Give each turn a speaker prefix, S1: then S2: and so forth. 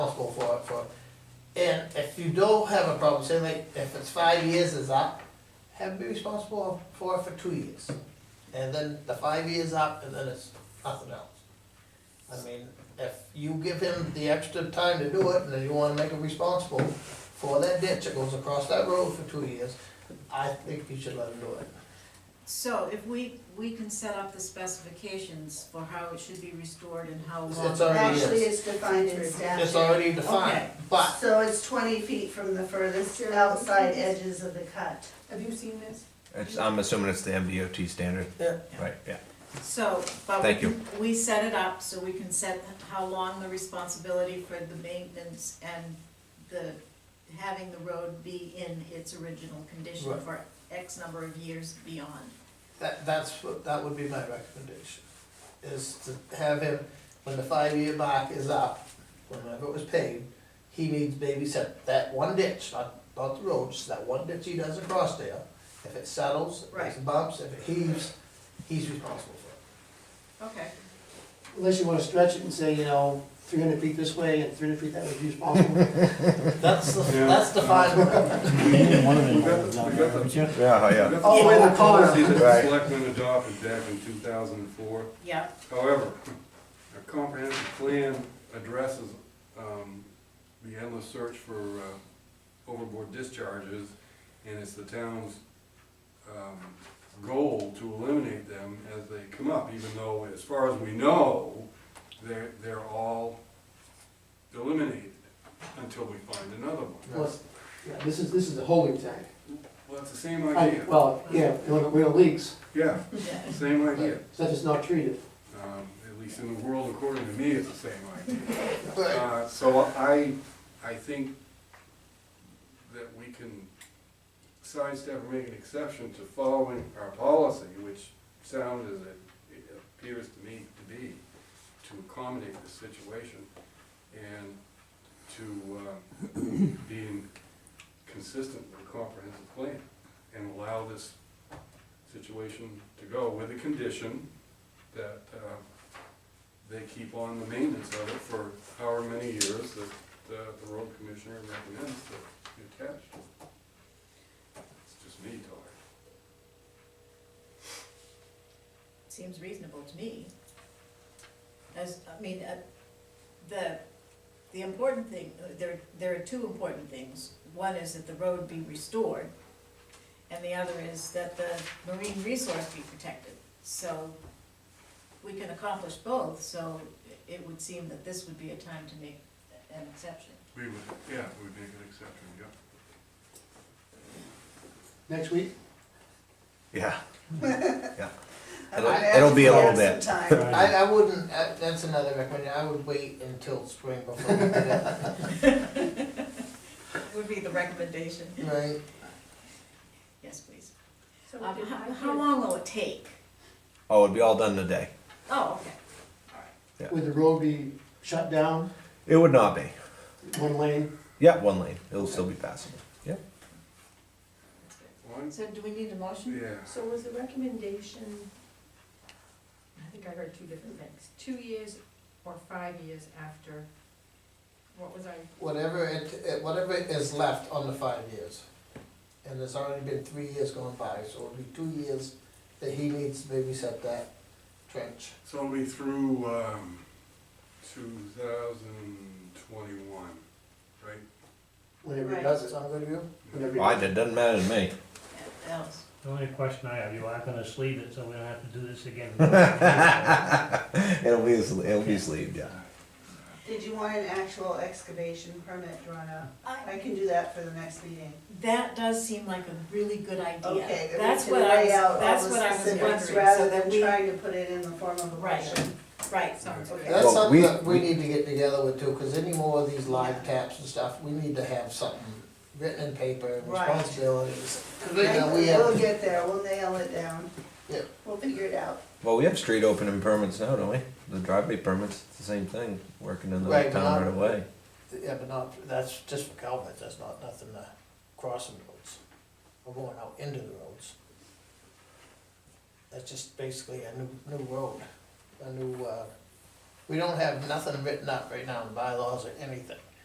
S1: if you don't have a problem, say like, if it's five years is up, have be responsible for it for two years. And then the five years up, and then it's nothing else. I mean, if you give him the extra time to do it, and then you wanna make him responsible for that ditch that goes across that road for two years, I think you should let him do it.
S2: So if we, we can set up the specifications for how it should be restored and how
S1: It's-
S2: long.
S1: it's already-
S3: Actually, it's defined in
S1: It's
S3: statute.
S1: already defined,
S2: Okay.
S1: but
S3: So it's twenty feet from the furthest outside edges of the cut.
S4: Have you seen this?
S5: It's, I'm assuming it's the MDOT standard.
S1: Yeah.
S5: Right, yeah.
S2: So, but we,
S5: Thank you.
S2: can- we set it up so we can set how long the responsibility for the maintenance and the, having the road be in its original condition
S1: Right.
S2: for X number of years beyond.
S1: That, that's, what- that would be my recommendation, is to have him, when the five-year mark is up, whenever it was paid, he needs maybe set that one ditch, not, not the road, just that one ditch he does across there. If it settles, if
S2: Right.
S1: it bumps, if it heaves, he's responsible for
S2: Okay.
S6: Unless you wanna stretch it and say, you know, three hundred feet this way and three hundred feet that way, who's responsible?
S1: it. That's, the that's the final,
S7: One of
S8: We
S7: them
S8: got-
S7: was down
S8: we
S7: there,
S8: got
S7: weren't you?
S5: Yeah,
S8: We got
S6: Oh,
S8: the
S6: in
S8: former
S6: the corner.
S8: policy that the
S5: Right.
S8: selectmen adopted back in two thousand and four.
S2: Yeah,
S8: However, a comprehensive plan addresses, um, the endless search for, uh, overboard discharges, and it's the town's, um, goal to eliminate them as they come up, even though, as far as we know, they're, they're all eliminated until we find another one.
S6: Well, yeah, This is, this is a holding tank.
S8: Well, it's the same
S6: I-
S8: idea,
S6: Well, yeah, when it- when it leaks,
S8: yeah,
S2: yeah.
S8: same idea.
S6: so that it's not treated.
S8: Um, at least in the world according to me, it's the same idea.
S1: but
S8: Uh, So I, I think that we can sidestep or make an exception to following our policy, which sound as it it appears to me to be, to accommodate this situation and to um, being consistent with a comprehensive plan and allow this situation to go with the condition that uh, they keep on the maintenance of it for however many years that uh, the road commissioner recommends that it attach. It's just me talking.
S2: Seems reasonable to me. As, I mean, uh, the, the important thing, uh, there, there are two important things. One is that the road be restored, and the other is that the marine resource be protected. So we can accomplish both, so it would seem that this would be a time to make an exception.
S8: We would, yeah, we would make an exception, yeah.
S6: Next week,
S5: Yeah. Yeah.
S3: I
S5: It'll,
S3: would
S5: it'll be a little
S3: ask for
S5: bit.
S3: some time.
S1: I, I wouldn't, uh, that's another recommendation, I would wait until spring before we do that,
S2: Would be the recommendation.
S1: right?
S2: Yes, please.
S4: So
S2: Um,
S4: did I
S2: how,
S4: hear-
S2: how long will it take?
S5: Oh, it'd be all done in a day.
S2: Oh, okay, all right.
S6: would the road be shut down,
S5: It would not be.
S6: one lane?
S5: Yeah, one lane. It'll still be passable. Yeah.
S2: that's good.
S8: One,
S2: So do we need a motion?
S8: yeah.
S4: So was the recommendation, I think I heard two different things, two years or five years after, what was I?
S1: whatever it, it- whatever is left on the five years. And there's already been three years gone by, so it'll be two years that he needs to maybe set that trench.
S8: So it'll be through, um, two thousand twenty-one, right?
S6: Whenever it
S2: Right.
S6: does it.
S1: Sound good to you?
S6: Whenever it
S5: Why,
S6: does it.
S5: that doesn't matter to me.
S2: Yeah, Else?
S7: The only question I have, you are gonna sleeve it, so we don't have to do this again.
S5: It'll be, it'll be sleeved, yeah.
S3: Did you want an actual excavation permit drawn up?
S2: I-
S3: I can do that for the next meeting.
S2: That does seem like a really good idea.
S3: Okay, then we
S2: That's
S3: can
S2: what I
S3: lay
S2: was-
S3: out all
S2: That's
S3: the
S2: what I was
S3: specifics
S2: wondering, so
S3: Rather
S2: that
S3: than
S2: we,
S3: trying to put it in the form of a
S2: Right.
S3: motion.
S2: right, sounds
S3: Okay.
S2: good.
S1: That's
S5: Well, we-
S1: something that we need to get together with too, cause any more of these live taps and stuff, we need to have something written in paper, and
S3: Right.
S1: responsibilities.
S3: Okay,
S1: Yeah, we
S3: We'll
S1: have-
S3: get there, we'll nail it down.
S1: Yeah.
S3: We'll figure it out.
S5: Well, we have street opening permits now, don't we? The driveway permits, it's the same thing, working in the
S1: Right,
S5: town
S1: but-
S5: right away.
S1: Yeah, but not, that's just for Calvert, that's not nothing to crossing roads, or going out into the roads. That's just basically a new, new road, a new, uh, we don't have nothing written up right now in bylaws or anything.